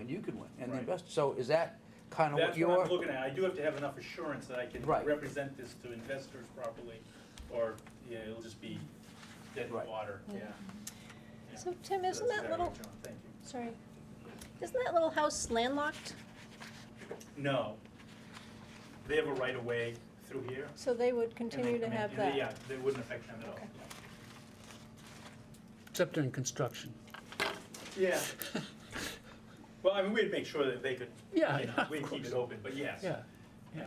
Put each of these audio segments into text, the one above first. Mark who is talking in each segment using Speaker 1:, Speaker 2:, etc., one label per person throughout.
Speaker 1: you can win, and the
Speaker 2: Right.
Speaker 1: investor, so is that kind of what
Speaker 2: That's what I'm
Speaker 1: you're?
Speaker 2: looking at. I do have to have enough assurance that I can
Speaker 1: Right.
Speaker 2: represent this to investors properly, or, yeah, it'll just be dead
Speaker 1: Right.
Speaker 2: water, yeah. Yeah.
Speaker 3: So Tim,
Speaker 2: That's
Speaker 3: isn't that
Speaker 2: exactly
Speaker 3: little,
Speaker 2: it, John. Thank you.
Speaker 3: sorry, isn't that little house landlocked?
Speaker 2: No. They have a right of way through here. and
Speaker 3: So they would
Speaker 2: they
Speaker 3: continue to
Speaker 2: come in,
Speaker 3: have
Speaker 2: and they-
Speaker 3: that?
Speaker 2: Yeah, they wouldn't affect them at all.
Speaker 3: Okay.
Speaker 4: Except during construction.
Speaker 2: Yeah. Well, I mean, we'd make sure that they could, you
Speaker 4: Yeah, yeah,
Speaker 2: know,
Speaker 4: of
Speaker 2: we'd keep
Speaker 4: course.
Speaker 2: it open, but yes.
Speaker 4: Yeah,
Speaker 2: Yeah.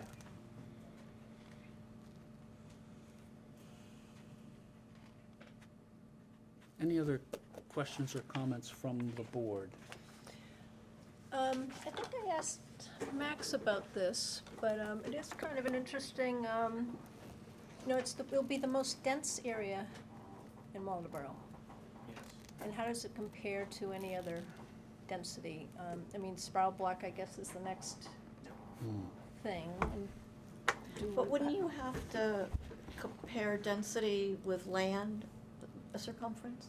Speaker 4: any other questions or comments from the board?
Speaker 3: Um, I think I asked Max about this, but, um, it is kind of an interesting, um, you know, it's the, it'll be the most dense area in Waldeboro.
Speaker 2: Yes.
Speaker 3: And how does it compare to any other density? Um, I mean, Sproul Block, I guess, is the next
Speaker 4: Hmm.
Speaker 3: thing. and do
Speaker 5: But
Speaker 3: with
Speaker 5: wouldn't
Speaker 3: that.
Speaker 5: you have to compare density with land, a circumference?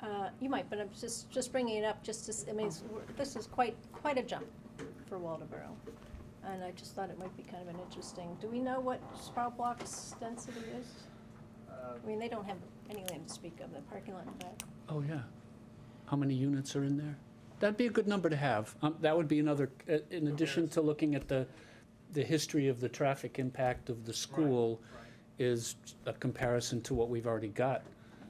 Speaker 3: Uh, you might, but I'm just, just bringing it up, just to, s- I mean, it's- we're- this is quite, quite a jump for Waldeboro. And I just thought it might be kind of an interesting, do we know what Sproul Block's density is? I mean, they don't have any land to speak of, the parking lot in back.
Speaker 4: Oh, yeah. How many units are in there? That'd be a good number to have. Um, That would be another, uh, in addition to looking at the, the history of the traffic impact of the school is a comparison to what we've already got.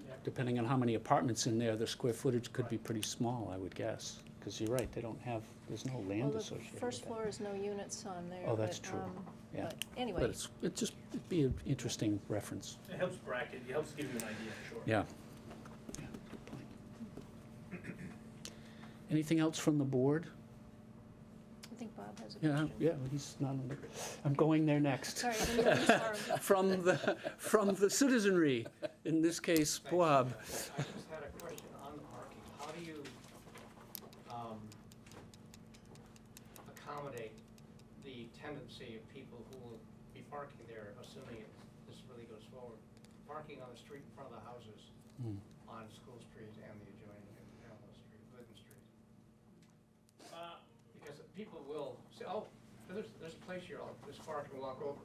Speaker 2: Yep.
Speaker 4: Depending on how many apartments in there, the square footage could be pretty small, I would guess. Because you're right, they don't have, there's no
Speaker 3: Well,
Speaker 4: land
Speaker 3: the
Speaker 4: associated with
Speaker 3: first
Speaker 4: that.
Speaker 3: floor is no units on there.
Speaker 4: Oh, that's
Speaker 3: but,
Speaker 4: true.
Speaker 3: um,
Speaker 4: Yeah.
Speaker 3: But anyway.
Speaker 4: But it's, it just, it'd be an interesting reference.
Speaker 2: It helps bracket, it helps give you an idea, sure.
Speaker 4: Yeah. Yeah, good point. Anything else from the board?
Speaker 3: I think Bob has a
Speaker 4: Yeah,
Speaker 3: question.
Speaker 4: yeah, he's not, on the- I'm going there next.
Speaker 3: Sorry, I didn't mean to interrupt.
Speaker 4: From the, from the citizenry, in this case, Boab.
Speaker 6: I just had a question on the parking. How do you um, accommodate the tendency of people who will be parking there, assuming it- this really goes forward? Parking on the street in front of the houses
Speaker 4: Hmm.
Speaker 6: on School Street and the adjoining and parallel street, Glidden Street.
Speaker 2: Uh,
Speaker 6: Because people will say, oh, there's, there's a place here, I'll just park and walk over.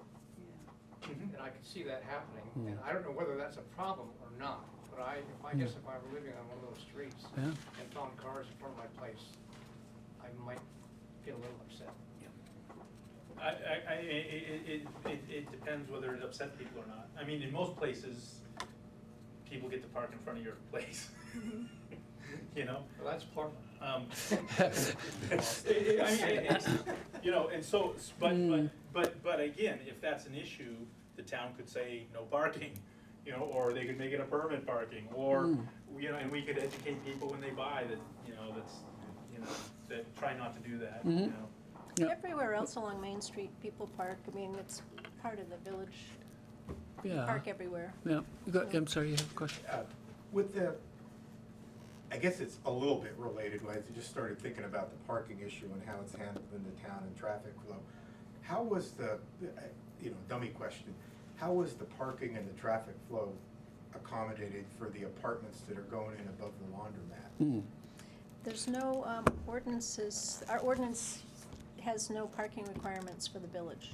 Speaker 2: Mhm.
Speaker 6: And I can see that happening, and I don't know whether that's a problem or not, but I, I guess if I were living on one of those streets
Speaker 4: Yeah.
Speaker 6: and found cars in front of my place, I might get a little upset.
Speaker 2: I, I, I, it, it, it, it depends whether it upset people or not. I mean, in most places, people get to park in front of your place, you know?
Speaker 6: Well, that's Portland.
Speaker 2: Um, it- it- I mean, it- it's, you know, and so, s- but, but,
Speaker 4: Mm.
Speaker 2: but, but again, if that's an issue, the town could say no parking, you know, or they could make it a permit parking, or,
Speaker 4: Mm.
Speaker 2: you know, and we could educate people when they buy that, you know, that's, you know, that try not to do that, you
Speaker 4: Mhm.
Speaker 2: know?
Speaker 4: Yeah.
Speaker 3: Everywhere else along Main Street, people park, I mean, it's part of the village, You
Speaker 4: Yeah,
Speaker 3: park everywhere.
Speaker 4: yeah. You got- I'm sorry, you have a question?
Speaker 7: Uh, With the, I guess it's a little bit related, right? I just started thinking about the parking issue and how it's handled in the town and traffic flow. How was the, uh, you know, dummy question, how was the parking and the traffic flow accommodated for the apartments that are going in above the laundromat?
Speaker 4: Hmm.
Speaker 3: There's no um, ordinances, our ordinance has no parking requirements for the village.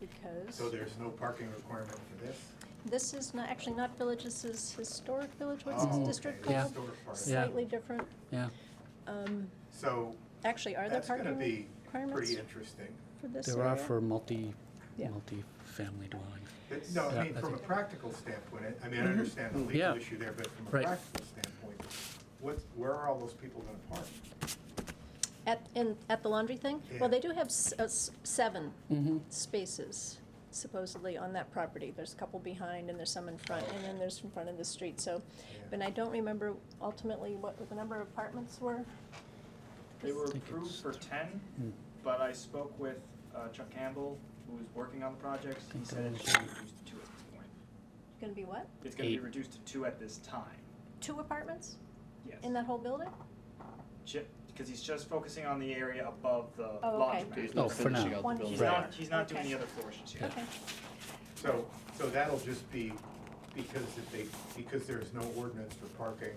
Speaker 3: Because
Speaker 7: So there's no parking requirement for this?
Speaker 3: this is not, actually not village, this is historic village, what's
Speaker 7: Oh,
Speaker 3: this
Speaker 7: okay,
Speaker 3: district
Speaker 7: the
Speaker 3: called?
Speaker 7: historic part.
Speaker 4: Yeah.
Speaker 3: Slightly different.
Speaker 4: Yeah,
Speaker 3: Um,
Speaker 7: So
Speaker 3: Actually, are there
Speaker 7: that's gonna
Speaker 3: parking
Speaker 7: be
Speaker 3: requirements
Speaker 7: pretty interesting.
Speaker 3: for this area?
Speaker 4: there are for multi,
Speaker 3: Yeah.
Speaker 4: multi-family dwellings.
Speaker 7: It- No,
Speaker 4: Yeah,
Speaker 7: I mean,
Speaker 4: I
Speaker 7: from a
Speaker 4: think-
Speaker 7: practical standpoint, I- I mean, I understand the
Speaker 4: Yeah.
Speaker 7: legal issue there, but from a
Speaker 4: Right.
Speaker 7: practical standpoint, what, where are all those people gonna park?
Speaker 3: At, in, at the laundry thing?
Speaker 7: Yeah.
Speaker 3: Well, they do have s- uh, s- seven
Speaker 4: Mhm.
Speaker 3: spaces supposedly on that property. There's a couple behind and there's some in front, and then there's in front of the street, so. But I don't remember ultimately what the number of apartments were.
Speaker 8: They were
Speaker 4: think
Speaker 8: approved
Speaker 4: it's-
Speaker 8: for ten,
Speaker 4: Hmm.
Speaker 8: but I spoke with uh, Chuck Campbell, who was working on the project. He
Speaker 4: Think
Speaker 8: said
Speaker 4: those-
Speaker 8: it's gonna be reduced to two at this point.
Speaker 3: Gonna be what?
Speaker 8: It's gonna be
Speaker 4: Eight.
Speaker 8: reduced to two at this time,
Speaker 3: Two apartments
Speaker 8: yes.
Speaker 3: in that whole building?
Speaker 8: Because he's just focusing on the area above the
Speaker 3: Oh, okay.
Speaker 8: laundromat.
Speaker 4: Oh, for now.
Speaker 3: One
Speaker 8: He's
Speaker 3: floor.
Speaker 8: not, he's not doing
Speaker 3: Okay.
Speaker 8: the other floors just yet.
Speaker 3: Okay,
Speaker 7: So, so that'll just be because if they, because there's no ordinance for parking